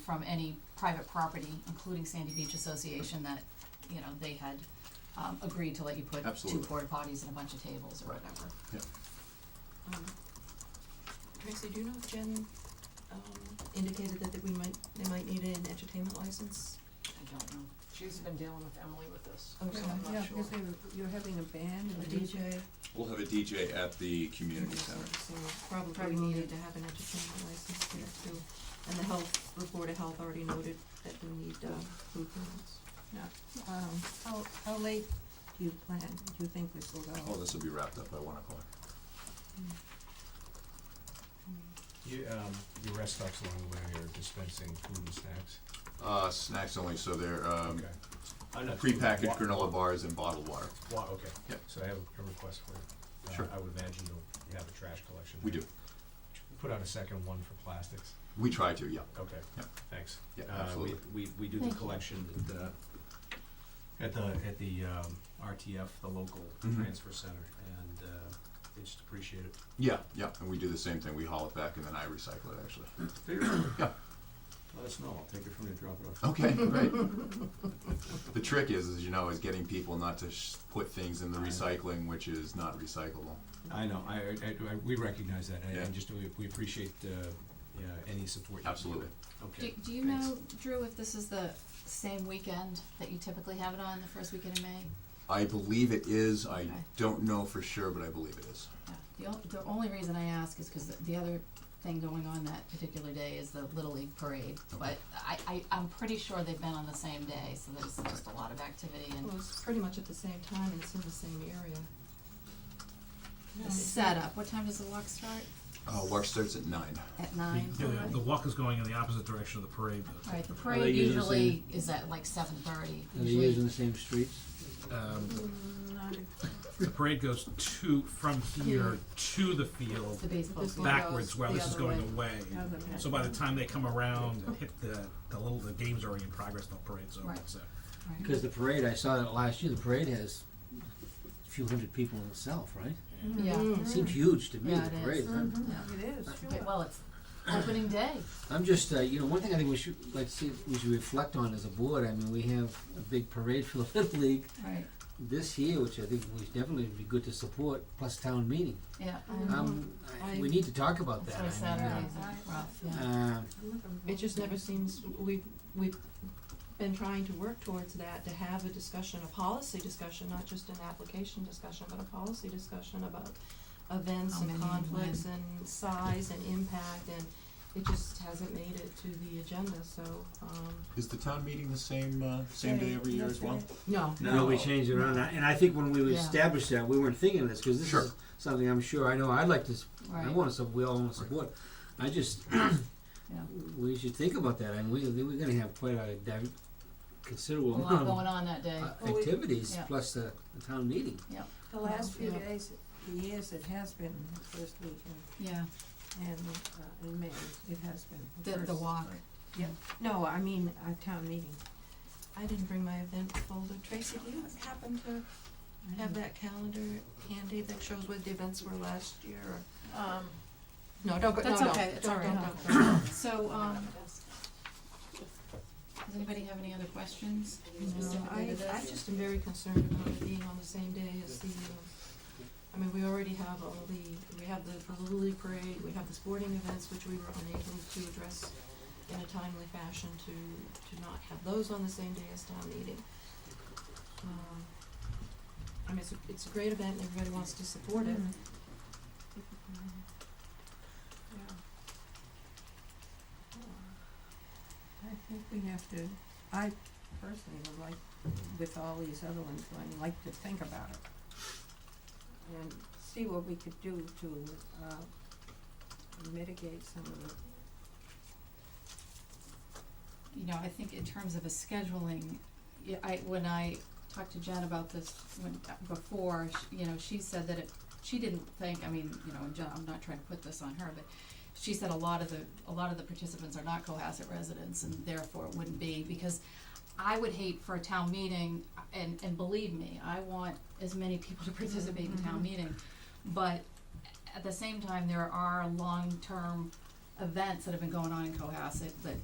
from any private property, including Sandy Beach Association, that, you know, they had, um, agreed to let you put two Absolutely. porta potties and a bunch of tables or Right. whatever. Um, Tracy, do you know if Jen, um, indicated that, that we might, they might need an entertainment license? I don't know. She's been dealing with Emily with this, Oh, so I'm Yeah, not sure. because they were, you're having a band A and DJ? We'll have a DJ at the community So- center. So probably Probably needed needed. to have an entertainment license there too. And the health, the Board of Health already noted that we need, uh, food permits. Um, how, how late do you plan, do you think this will Oh, go? this will be wrapped up by one o'clock. You, um, your rest stops along the way are dispensing food and snacks? Uh, snacks only, so they're, um, I'm not sure. prepackaged Wa- granola bars and bottled water. Wa- okay. Yep. So I have a request for you. Uh, Sure. I would imagine you'll, you have a trash collection. We there. do. Put out a second one for plastics. We try to, yeah, Okay. Yep. Thanks. yeah, Uh, we- absolutely. We, we do the Thank you. collection at, uh, at the, at the, um, RTF, the local Mhm. transfer center, and, uh, they just appreciate it. Yeah, yeah, and we do the same thing. We haul it back and then I recycle it, actually. Yeah. Let us know, I'll take it from you, drop it off. Okay, great. The trick is, as you know, is getting people not to sh- put things in the recycling, which is not recyclable. I know, I, I, I, we recognize that, and- Yeah. and just, we, we appreciate, uh, yeah, any support you can give. Absolutely. Okay. Do, do you thanks. know, Drew, if this is the same weekend that you typically have it on, the first weekend in May? I believe it is. I Okay. don't know for sure, but I believe it is. Yeah, the only, the only reason I ask is because the, the other thing going on that particular day is the Little League Parade. But I, I, I'm pretty sure they've been on the same day, so there's just a lot of activity and Well, it's pretty much at the same time and it's in the same area. No, the it's- setup. What time does the walk start? Uh, work starts at nine. At nine? Yeah, the- the walk is going in the opposite direction of the parade. though. Alright, the they parade using the usually is at like seven thirty, Are they using usually, the same streets? Um, Mm, not if- the parade goes to from here to the it's the field baseball This field. one backwards, goes while the this is other going way. away. How's it So by the time they come around and hit the the little the game's already in progress, the parade's over. Right. So Right. Because the parade, I saw that last year, the parade has a few hundred people in itself, right? Yeah, Mm-hmm. It seems huge to me, Mm. Yeah, the it parade. is. Mm-hmm. I'm- It is, Okay, sure. well, it's opening day, I'm just, uh, you know, one thing I think we should, like, see, we should reflect on as a board, I mean, we have a big parade for the Little League right, this year, which I think we should definitely be good to support, plus town meeting. yeah, Mhm. and Um, I, I- we need to talk about Mm-hmm. that's that. why I mean, Saturdays are rough, yeah. uh, It just never seems, we've, we've been trying to work towards that, to have a discussion, a policy discussion, not just an application discussion, but a policy discussion about events How and many and conflicts and size and impact, and it just hasn't made it to the agenda, so, um, Is the town meeting the same, uh, same day every year as well? no. You know, we changed it around, and I think when we Yeah. established that, we weren't thinking of this, cause this Sure. is something I'm sure, I know, I'd like to, s- I Right. wanna, sup- we all wanna support. I just, we should think about that, and we, we're gonna have quite a div- a considerable lot amount going of on that day, uh, Well, we- activities, Yeah. plus the, the town meeting. The last few Yeah. days, the years it has been, the first weekend, yeah, and, uh, in May, it has been. the, the first- walk. No, I mean, our town meeting. I didn't bring my event folder, Tracy, do you happen to have that calendar handy that shows what the events were last year, or? um, No, don't go, no, no, That's don't, okay, it's all right. don't, don't, So, um, does anybody have any other questions No, specifically I, to this? I just am very concerned about it being on the same day as the, um, I mean, we already have all the, we have the, the Little League Parade, we have the sporting events, which we were unable to address in a timely fashion to, to not have those on the same day as town meeting. Um, I mean, it's a, it's a great event and everybody wants to support it. I think we have to, I personally would like, with all these other ones, I'd like to think about it. And see what we could do to, uh, mitigate some of the, you know, I think in terms of a scheduling, yeah, I, when I talked to Jen about this when, before, sh- you know, she said that it, she didn't think, I mean, you know, and Jen, I'm not trying to put this on her, but she said a lot of the, a lot of the participants are not Cohasset residents and therefore it wouldn't be, because I would hate for a town meeting, and, and believe me, I want as many people to participate in town meeting. But at the same time, there are long-term events that have been going on in Cohasset that